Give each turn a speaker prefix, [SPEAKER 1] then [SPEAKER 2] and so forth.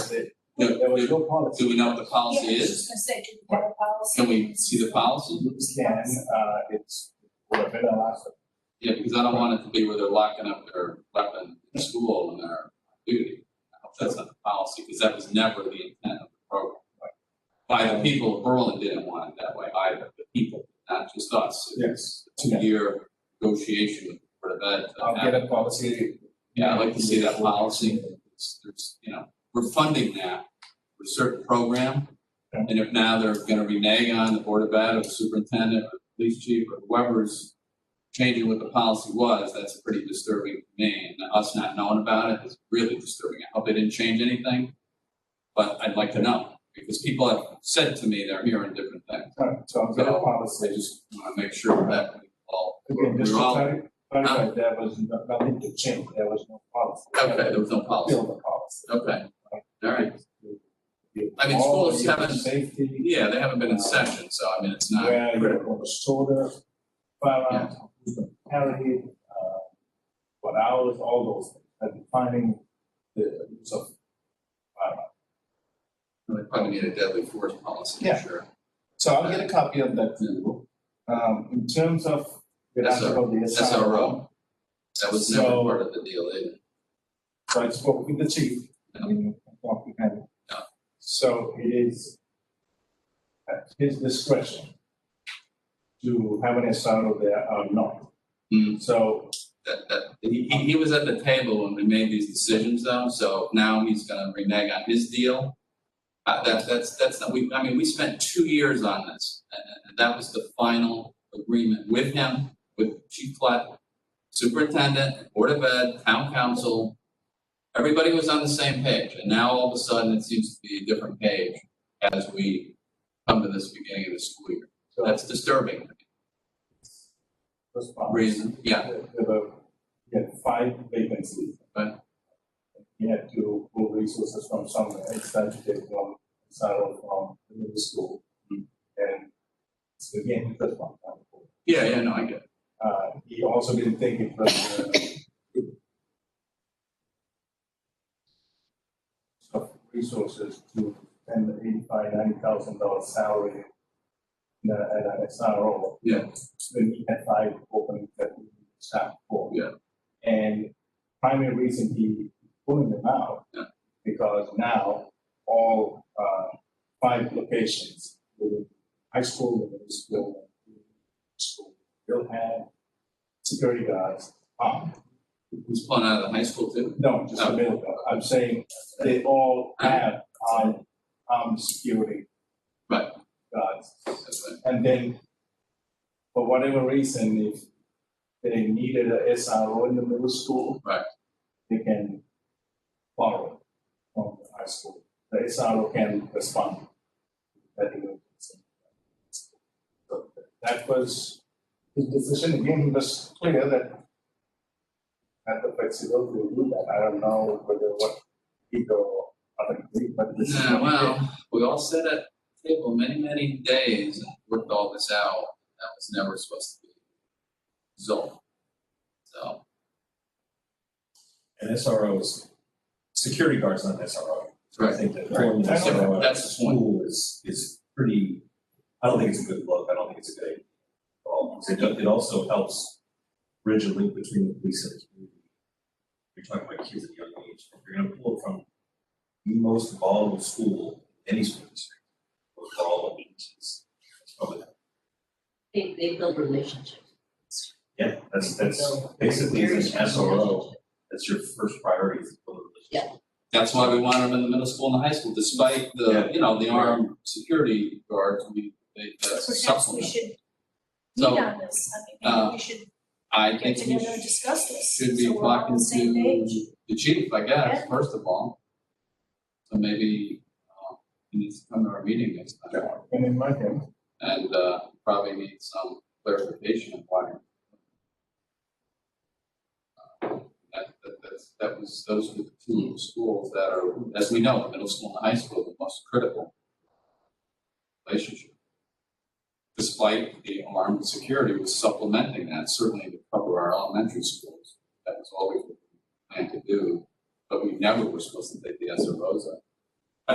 [SPEAKER 1] No,
[SPEAKER 2] There was
[SPEAKER 1] no,
[SPEAKER 2] no policy.
[SPEAKER 1] do we know what the policy
[SPEAKER 3] Yeah, I was
[SPEAKER 1] is?
[SPEAKER 3] just gonna say, do we have a policy?
[SPEAKER 1] Can we see the policy?
[SPEAKER 2] Can, uh, it's, we're a bit last.
[SPEAKER 1] Yeah, because I don't want it to be where they're locking up their weapon in school and their duty. I hope that's not the policy, because that was never the intent of the program. By the people of Berlin didn't want it that way either, the people, not just us. It was a Two-year negotiation with the Board of Ed.
[SPEAKER 4] I'll get a policy.
[SPEAKER 1] Yeah, I'd like to see that policy. It's- There's, you know, we're funding that for a certain program. And if now they're gonna renege on the Board of Ed or the superintendent or the police chief or whoever's changing what the policy was, that's pretty disturbing to me. And us not knowing about it is really disturbing. I hope they didn't change anything. But I'd like to know, because people have said to me they're hearing different things.
[SPEAKER 2] Alright, So I'll get a
[SPEAKER 1] I
[SPEAKER 2] policy.
[SPEAKER 1] just wanna make sure that we all,
[SPEAKER 2] Again, just to
[SPEAKER 1] we're all, okay,
[SPEAKER 2] clar- clarify, there was no- nothing to change, there was no policy.
[SPEAKER 1] there was no policy.
[SPEAKER 2] Build the policy.
[SPEAKER 1] Okay, all right. I
[SPEAKER 2] I
[SPEAKER 1] mean, schools haven't-
[SPEAKER 2] Safety.
[SPEAKER 1] Yeah, they haven't been in session, so I mean, it's not
[SPEAKER 2] where you're
[SPEAKER 1] critical.
[SPEAKER 2] going to store the firearms, who's going to carry it, uh, what hours, all those things, and defining the use of firearms.
[SPEAKER 1] They probably need a deadly force policy,
[SPEAKER 2] Yeah.
[SPEAKER 1] for sure.
[SPEAKER 2] So I'll get a copy of that to you. Um, in terms of, we asked
[SPEAKER 1] SR-
[SPEAKER 2] about the
[SPEAKER 1] SRO. That was never
[SPEAKER 2] So-
[SPEAKER 1] part of the deal, either.
[SPEAKER 2] So I spoke with the chief, I mean, I talked with him.
[SPEAKER 1] Yeah.
[SPEAKER 2] So it is at his discretion to have an SRO there or not.
[SPEAKER 1] Hmm.
[SPEAKER 2] So
[SPEAKER 1] That, that, he, he he was at the table when we made these decisions though, so now he's gonna renege on his deal. Uh, that, that's, that's, not- we, I mean, we spent two years on this, and, and- and that was the final agreement with him, with Chief Platt, Superintendent, Board of Ed, Town Council. Everybody was on the same page, and now all of a sudden it seems to be a different page as we come to this beginning of the school year.
[SPEAKER 2] so
[SPEAKER 1] That's disturbing,
[SPEAKER 2] those parts.
[SPEAKER 1] reason, yeah,
[SPEAKER 2] There were, he had five vacancies.
[SPEAKER 1] Right.
[SPEAKER 2] He had to pull resources from somewhere, it's time to take from, Sarah from the middle school.
[SPEAKER 1] Hmm.
[SPEAKER 2] And so again, that's one time.
[SPEAKER 1] yeah, yeah, no, I get it.
[SPEAKER 2] Uh, he also didn't think it was, uh, it- uh, of resources to spend the eighty-five, ninety thousand dollar salary in a, at an SRO.
[SPEAKER 1] Yeah.
[SPEAKER 2] When he had five open that we staff for.
[SPEAKER 1] Yeah.
[SPEAKER 2] And primary reason he pulling them out.
[SPEAKER 1] Yeah.
[SPEAKER 2] Because now all, uh, five locations, within high school, the middle school, school, will have security guards armed.
[SPEAKER 1] He's pulling out of the high school too.
[SPEAKER 2] No, just the middle guard. I'm saying they all have armed, armed security.
[SPEAKER 1] Right.
[SPEAKER 2] Guards.
[SPEAKER 1] That's right.
[SPEAKER 2] And then, for whatever reason, if they needed a SRO in the middle school.
[SPEAKER 1] Right.
[SPEAKER 2] They can borrow from the high school. The SRO can respond. to that emergency. So That was his decision. Again, he was clear that had the flexibility to do that. I don't know whether what he or other agreed, but this is.
[SPEAKER 1] Yeah,
[SPEAKER 2] what he did.
[SPEAKER 1] well, we all sat at the table many, many days and worked all this out. That was never supposed to be resolved. So,
[SPEAKER 4] An SRO is, security guard's not an SRO. I
[SPEAKER 1] right,
[SPEAKER 4] think that pulling an
[SPEAKER 2] That's
[SPEAKER 4] SRO out of
[SPEAKER 1] that's the point.
[SPEAKER 4] school is, is pretty, I don't think it's a good look, I don't think it's a good call. 'Cause It, do- it also helps bridge a link between the police and the community. You're talking about kids at a young age, if you're gonna pull from the most volatile school, any school district, most volatile beaches. That's probably,
[SPEAKER 5] They, they build relationships.
[SPEAKER 4] yeah, that's, that's basically an SRO, that's your first priority is to build a relationship.
[SPEAKER 1] That's why we want them in the middle school and the high school, despite the,
[SPEAKER 4] Yeah.
[SPEAKER 1] you know, the armed security guards, we, they uh,
[SPEAKER 3] Perhaps we
[SPEAKER 1] supplement.
[SPEAKER 3] should meet
[SPEAKER 1] So,
[SPEAKER 3] on this, I mean,
[SPEAKER 1] uh,
[SPEAKER 3] maybe we should
[SPEAKER 1] I
[SPEAKER 3] get
[SPEAKER 1] think we
[SPEAKER 3] together and discuss this,
[SPEAKER 1] should be
[SPEAKER 3] so we're all on
[SPEAKER 1] talking
[SPEAKER 3] the same page.
[SPEAKER 1] to the chief, I guess,
[SPEAKER 3] Yeah.
[SPEAKER 1] first of all. So maybe, uh, he needs to come to our meeting next time.
[SPEAKER 2] And in my hand,
[SPEAKER 1] and uh, probably need some clarification of why. Uh, That, that, that's, that was, those were the two schools that are, as we know, the middle school and the high school, the most critical relationship. Despite the armed security was supplementing that, certainly to cover our elementary schools. That was always what we planned to do, but we never were supposed to take the SROs out.